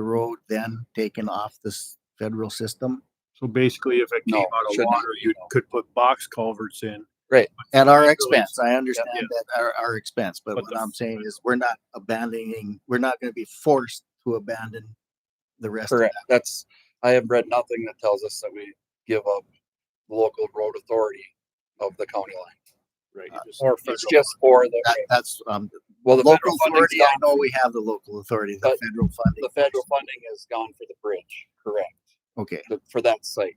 the road then taken off this federal system? So basically, if it No, came out of shouldn't. water, you could put box culverts in. At our Really? expense, I understand Yeah. that our, our expense, but But what the- I'm saying is we're not abandoning, we're not gonna be forced to abandon the rest of Correct. That's, I have read nothing that tells us that we give up the local road authority of the county line. Right. Or Uh, It's just for the, that. That's, um, well, the local federal funding's authority, I gone, know we have the local authority, the But federal funding. the federal funding is gone for the bridge, correct, Okay, th- for that site.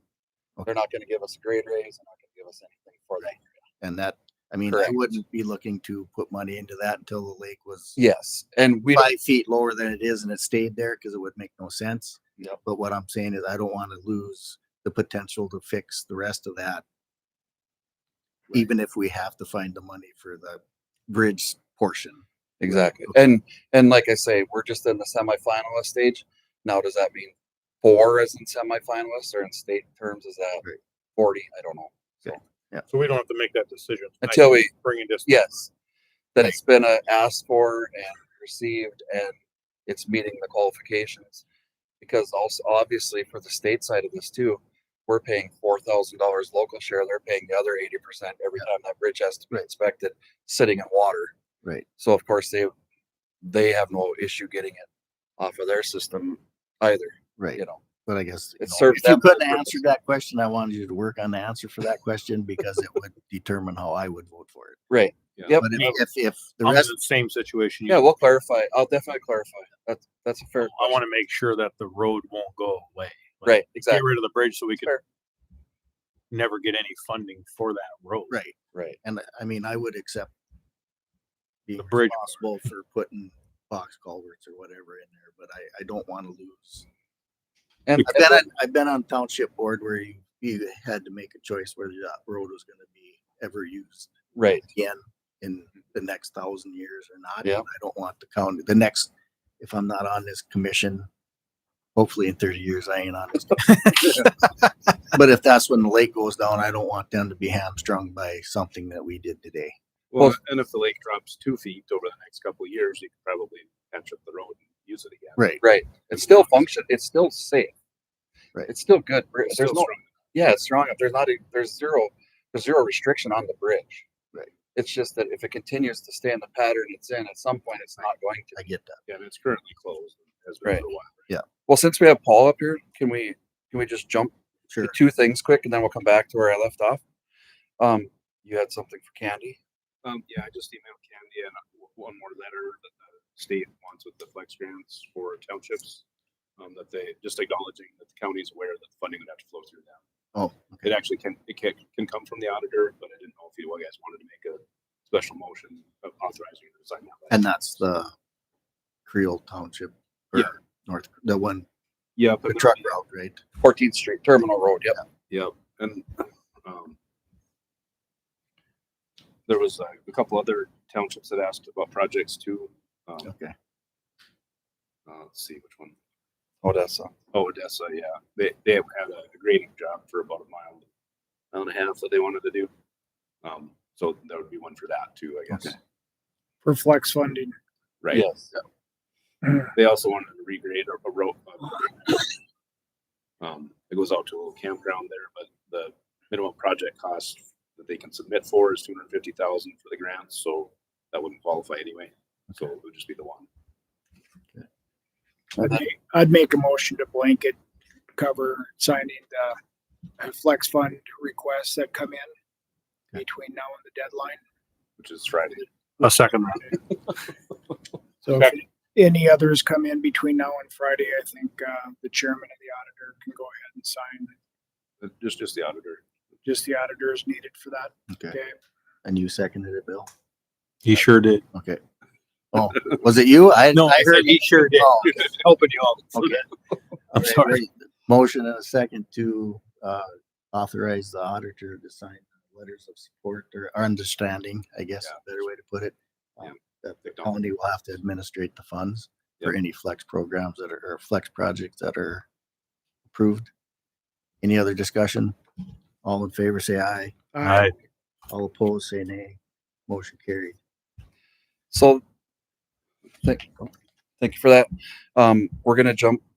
Okay. They're not gonna give us a grade raise, they're not gonna give us anything for that. and that, I mean, I Correct. wouldn't be looking to put money into that until the lake was Yes, and we, don't- five feet lower than it is and it stayed there because it would make no sense. Yep. But what I'm saying is I don't want to lose the potential to fix the rest of that. Even if we have to find the money for the bridge portion. exactly. And, and like I say, we're just in the semifinalist stage. Now, does that mean four is in semifinalists or in state terms, is that Right. forty? I don't know. So we don't have to make that decision. tonight. Until we Bringing this. Yes, that it's been uh, asked for and received and it's meeting the qualifications. Because also, obviously, for the state side of this too, we're paying four thousand dollars local share, they're paying the other eighty percent every time that bridge has to be inspected, sitting in water. Right. So of course, they, they have no issue getting it off of their system either, Right. you know, But I guess. you it know, serves If you them for couldn't purpose. answer that question, I wanted you to work on the answer for that question because it would determine how I would vote for it. right? Yep. But if, if, if the I'm in rest, the same situation. you Yeah, are. we'll clarify, I'll definitely clarify, that's, that's a fair. I want to make sure that the road won't go away. Like, Right, Get exactly, rid of the bridge so we can Fair. never get any funding for that road. right. right, And I mean, I would accept being The bridge responsible for putting box culverts or whatever in there, but I, I don't want to lose. and. I've been, on- I've been on township board where you, you had to make a choice whether that road was gonna be ever used Right, again in the next thousand years or not. Yeah. And I don't want the county, the next, if I'm not on this commission, hopefully in thirty years, I ain't on this. commission. But if that's when the lake goes down, I don't want them to be hamstrung by something that we did today. Well, Well- and if the lake drops two feet over the next couple of years, you can probably patch up the road and use it again. Right. Right. It's still function. It's still safe. Right. It's still good. bri- It's There's still no. strong. Yeah, it's strong. There's not. A, there's zero. There's zero restriction on the bridge. Right. It's just that if it continues to stay in the pattern it's in, at some point it's not going to. I get that. Yeah, and it's currently closed. Has been for a while. Well, since we have Paul up here, can we can we just jump Sure. to two things quick and then we'll come back to where I left off. Um, you had something for Candy. Um, yeah, I just emailed Candy and uh, one more letter that the state wants with the flex grants for townships. Um, that they, just acknowledging that the county is aware that the funding would have to flow through them. Oh, It actually can, it can, can come from the auditor, but I didn't know if you guys wanted to make a special motion of authorizing you to sign that. letter. And that's the Creole Township or Yeah. North, the one, Yeah, the but truck route, right? 14th Street Terminal Road. Yep. Yep, and um, there was uh, a couple other townships that asked about projects too. Um, Okay. uh, let's see which one. Odessa. Oh, Odessa. Yeah, they they had a grading job for about a mile, mile and a half that they wanted to do. Um, so that would be one for that too, I guess. Okay. for flex funding. Right. Yes. They also wanted to regrade a, a road. Um, it goes out to a little campground there, but the minimum project cost that they can submit for is two hundred fifty thousand for the grant, so that wouldn't qualify anyway. So it would just be the one. And then- I'd make a motion to blanket cover signing the uh, flex fund requests that come in Okay. between now and the deadline. which is Friday. A second round. So if any others come in between now and Friday, I think uh, the chairman and the auditor can go ahead and sign. Uh, Just, just the auditor. Just the auditor is needed for that. Okay. Okay. And you seconded it, Bill? He sure did. Okay. Oh, was it you? I, No, I I said heard. he sure did. Oh, Helping you out. Okay. I'm Okay, sorry. wait. Motion and a second to, uh, authorize the auditor to sign letters of support or understanding, I guess, is a better way to put it. Yeah. um, That the county will have to administrate the funds for Yeah. any flex programs that are, or flex projects that are approved. Any other discussion? All in favor, say aye. I, All opposed, say nay. Motion carried. So, thank, thank you for that. Um, we're gonna jump